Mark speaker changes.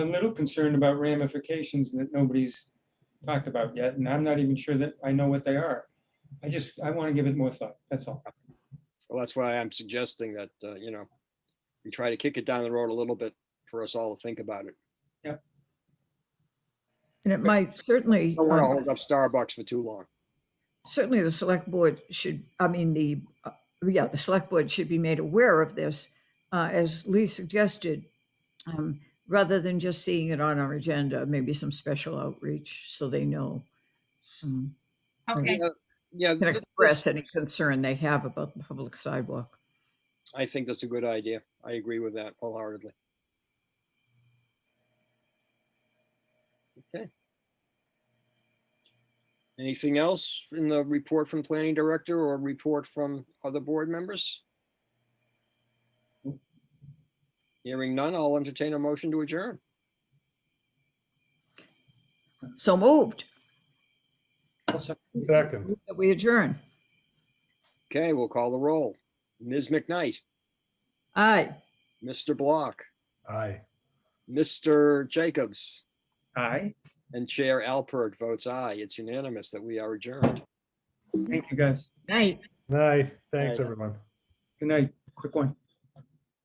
Speaker 1: a little concerned about ramifications that nobody's talked about yet, and I'm not even sure that I know what they are. I just, I want to give it more thought, that's all.
Speaker 2: Well, that's why I'm suggesting that, uh, you know, we try to kick it down the road a little bit for us all to think about it.
Speaker 3: And it might certainly,
Speaker 2: Don't want to
Speaker 3: um,
Speaker 2: hold up Starbucks for too long.
Speaker 3: certainly the select board should, I mean, the, uh, yeah, the select board should be made aware of this, uh, as Lee suggested, um, rather than just seeing it on our agenda, maybe some special outreach so they know. um,
Speaker 4: Okay,
Speaker 2: Yeah, Yeah,
Speaker 3: Can
Speaker 2: th-
Speaker 3: express any concern they have about the public sidewalk.
Speaker 2: I think that's a good idea. I agree with that wholeheartedly. Okay. Anything else in the report from planning director or report from other board members? Hearing none, I'll entertain a motion to adjourn.
Speaker 3: So moved,
Speaker 1: Also,
Speaker 5: Second,
Speaker 3: that we adjourn.
Speaker 2: Okay, we'll call the roll. Ms. McKnight,
Speaker 3: Aye.
Speaker 2: Mr. Block,
Speaker 5: aye.
Speaker 2: Mr. Jacobs,
Speaker 1: Aye,
Speaker 2: and Chair Alpert votes aye. It's unanimous that we are adjourned.
Speaker 1: thank you guys.
Speaker 3: Night.
Speaker 5: Night, thanks,
Speaker 2: Aye.
Speaker 5: everyone.
Speaker 1: Good night, quick one.